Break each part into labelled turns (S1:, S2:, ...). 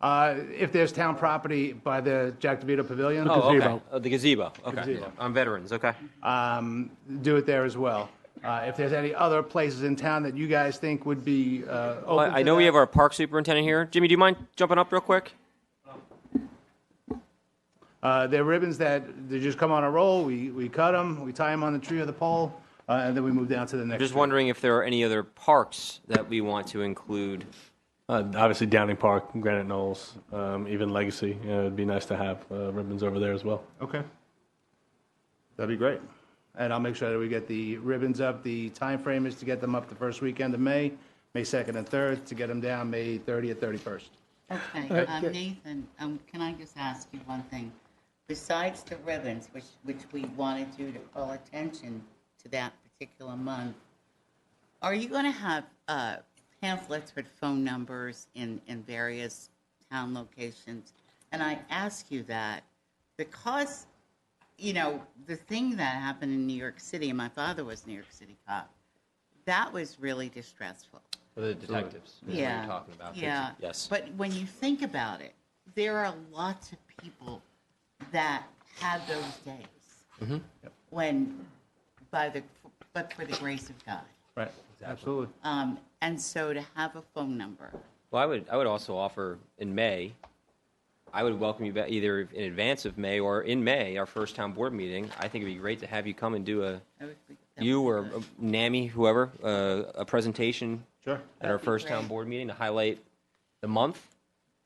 S1: Uh, If there's town property by the Jack DeVito Pavilion,
S2: Oh, okay.
S3: gazebo.
S2: Oh, The gazebo, okay.
S1: Gazebo.
S2: On veterans, okay.
S1: um, do it there as well. Uh, If there's any other places in town that you guys think would be uh, open
S2: Well, I
S1: to
S2: know we
S1: that.
S2: have our park superintendent here. Jimmy, do you mind jumping up real quick?
S1: Uh, They're ribbons that, they just come on a roll, we, we cut them, we tie them on the tree or the pole, uh, and then we move down to the next.
S2: Just
S1: tree.
S2: wondering if there are any other parks that we want to include.
S4: Uh, obviously, Downing Park, Granite Knolls, um, even Legacy. You know, it'd be nice to have uh, ribbons over there as well.
S1: Okay. That'd be great. And I'll make sure that we get the ribbons up. The time frame is to get them up the first weekend of May, May 2nd and 3rd, to get them down May 30th, 31st.
S5: Okay, um, Nathan, um, can I just ask you one thing? Besides the ribbons, which, which we wanted you to call attention to that particular month, are you gonna have, uh, pamphlets with phone numbers in, in various town locations? And I ask you that because you know, the thing that happened in New York City, and my father was a New York City cop, that was really distressful.
S2: The detectives,
S5: yeah. Yeah.
S2: Yes.
S5: But when you think about it, there are lots of people that had those days
S2: Mm-hmm.
S5: when, by the, but for the grace of God.
S1: Right, absolutely.
S5: Um, and so to have a phone number,
S2: Well, I would, I would also offer in May, I would welcome you back either in advance of May or in May, our first town board meeting. I think it'd be great to have you come and do a,
S5: that would be- that
S2: you
S5: would
S2: or
S5: be
S2: uh,
S5: good.
S2: NAMI, whoever, uh, a presentation
S1: Sure.
S2: at our
S5: be
S2: first town
S5: great.
S2: board meeting to highlight the month.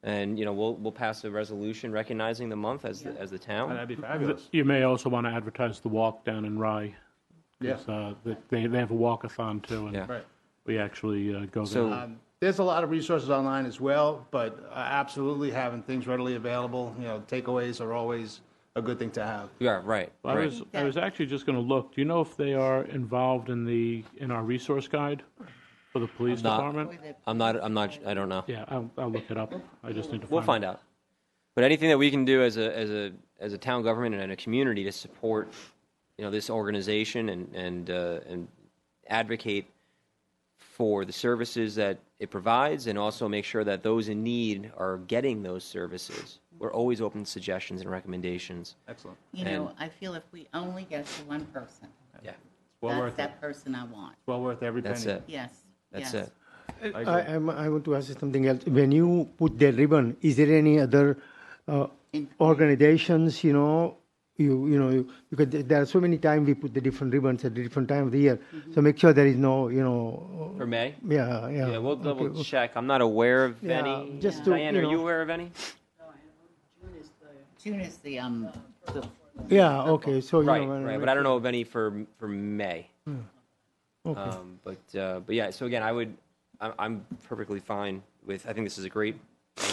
S2: And, you know, we'll, we'll pass a resolution recognizing the month as, the- as the town.
S1: That'd be fabulous.
S3: You may also want to advertise the walk down in Rye.
S1: Yeah.
S3: 'cause, uh, th- they, they have a walkathon too, and
S2: Yeah.
S1: Right.
S3: we actually uh, go
S2: So-
S3: there.
S1: Um, There's a lot of resources online as well, but uh, absolutely having things readily available, you know, takeaways are always a good thing to have.
S2: Yeah, right,
S3: I
S2: right.
S3: was I was actually just going to look. Do you know if they are involved in the in our resource guide for the police
S2: not-
S3: department?
S5: Or the-
S2: I'm not, I'm not, I don't know.
S3: Yeah, I'll, I'll look it up. I just need to.
S2: We'll
S3: find
S2: find out. But anything that we can do as a, as a, as a town government and a community to support, you know, this organization and, and, uh, and advocate for the services that it provides and also make sure that those in need are getting those services. We're always open to suggestions and recommendations.
S1: Excellent.
S5: You know, I feel if we only get to one person,
S2: Yeah,
S1: Well
S5: that's
S1: worth it.
S5: that person I want.
S1: Well worth every penny.
S2: that's it.
S5: Yes.
S2: That's
S5: yes.
S2: it.
S6: I, I'm- I want to ask you something else. When you put the ribbon, is there any other uh,
S5: In-
S6: organizations? You know, you you know, you, because there- there are so many times we put the different ribbons at the different time of the year.
S5: Mm-hmm.
S6: So make sure there is no, you know,
S2: For May?
S6: yeah, yeah.
S2: Yeah, we'll
S6: okay.
S2: double check. I'm not aware of
S6: Yeah,
S2: any.
S6: just to,
S2: Diane,
S6: you
S2: are you
S6: know-
S2: aware of any?
S5: June is the, um, the
S6: Yeah, okay. So you
S2: Right,
S6: know, when-
S2: right. But I don't know of any for for May.
S1: Hmm.
S6: Okay.
S2: Um, but uh, but yeah. So again, I would. I'm, I'm perfectly fine with. I think this is a great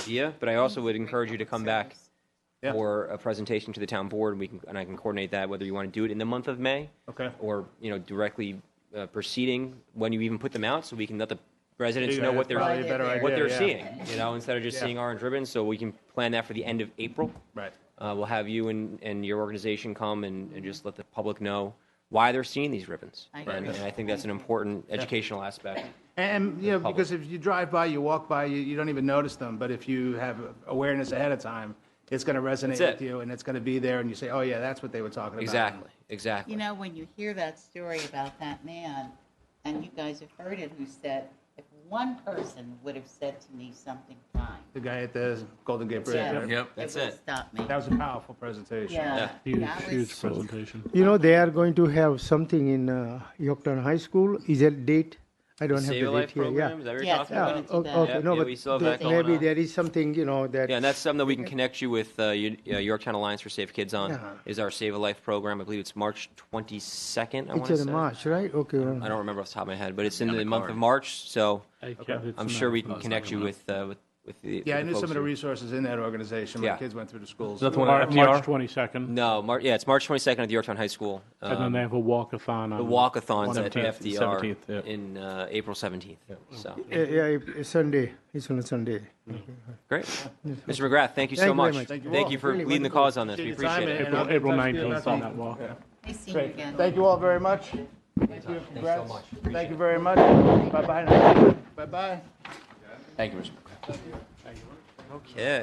S2: idea. But I also would encourage you to come back
S1: Yeah.
S2: for a presentation to the town board, and we can and I can coordinate that whether you want to do it in the month of May.
S1: Okay.
S2: Or you know directly uh, proceeding when you even put them out, so we can let the residents
S1: Yeah,
S2: know
S1: that's
S2: what they're
S1: probably a better
S2: what
S1: idea,
S2: they're
S1: yeah.
S2: seeing. You know, instead of just
S1: Yeah.
S2: seeing orange ribbons, so we can plan that for the end of April.
S1: Right.
S2: Uh, we'll have you and, and your organization come and, and just let the public know why they're seeing these ribbons.
S5: I
S2: And,
S5: agree.
S2: and I think that's an important educational aspect.
S1: And, you know,
S2: public.
S1: because if you drive by, you walk by, you, you don't even notice them, but if you have awareness ahead of time, it's gonna resonate
S2: it.
S1: with you, and it's gonna be there, and you say, oh, yeah, that's what they were talking about.
S2: Exactly, exactly.
S5: You know, when you hear that story about that man, and you guys have heard it, who said, if one person would have said to me something kind,
S1: The guy at the Golden Gate Bridge.
S5: Yeah.
S1: right?
S2: Yep,
S5: it
S2: that's
S5: would
S2: it.
S5: stop me.
S1: That was a powerful presentation.
S5: Yeah.
S3: Huge,
S5: that was-
S3: huge presentation.
S6: You know, they are going to have something in uh, Yorktown High School. Is there date? I don't have
S2: Save a
S6: the date
S2: life
S6: here.
S2: program, is
S6: Yeah.
S2: that what you're
S5: Yes,
S2: talking
S5: yeah.
S2: about?
S6: Yeah,
S5: gonna do
S6: o-
S5: that.
S6: okay,
S2: Yep,
S6: no,
S2: yeah,
S6: but
S2: we still have
S6: th-
S2: that going
S6: maybe
S2: on.
S6: there is something, you know, that
S2: Yeah, and that's something that we can connect you with uh, U- uh, Yorktown Alliance for Safe Kids on,
S6: Yeah.
S2: is our Save a Life program. I believe it's March 22nd, I want
S6: it's
S2: to
S6: in
S2: say.
S6: March, right? Okay.
S2: I don't remember off the top of my head, but it's in the month of March, so
S3: I can't- it's
S2: I'm
S3: not-
S2: sure we can connect you with, uh, with with the.
S1: Yeah, I
S2: with
S1: knew some
S2: folks
S1: of the
S2: who-
S1: resources in that organization.
S2: Yeah.
S1: My kids went through the schools.
S4: That's one
S3: Mar-
S4: FTR?
S3: March 22nd,
S2: No, Mar- yeah, it's March 22nd at the Yorktown High School.
S3: and
S2: Um,
S3: then they have a walkathon.
S2: the
S3: on-
S2: walkathons at
S4: 17th,
S2: FDR
S4: 17th, yeah.
S2: in uh, April 17th. So
S6: Yeah, yeah, it- it's Sunday. It's on a Sunday.
S2: great, Mr. McGrath, thank you
S6: Thank
S2: so
S6: you very
S2: much.
S6: much.
S2: Thank you,
S1: Well,
S2: for
S6: really
S2: leading the
S6: wonderful.
S2: cause on this. We
S1: Appreciate your
S2: appreciate
S1: time,
S2: it.
S1: and I'll
S3: April, April
S1: touch you
S3: 19th on
S1: about
S3: that walk.
S5: I see you
S1: Great.
S5: again.
S1: Thank you all very much. Thank you. Congrats.
S2: much. Appreciate
S1: Thank you very much. Bye-bye. now. Bye-bye.
S2: Thank you, Mr. McGrath. Okay.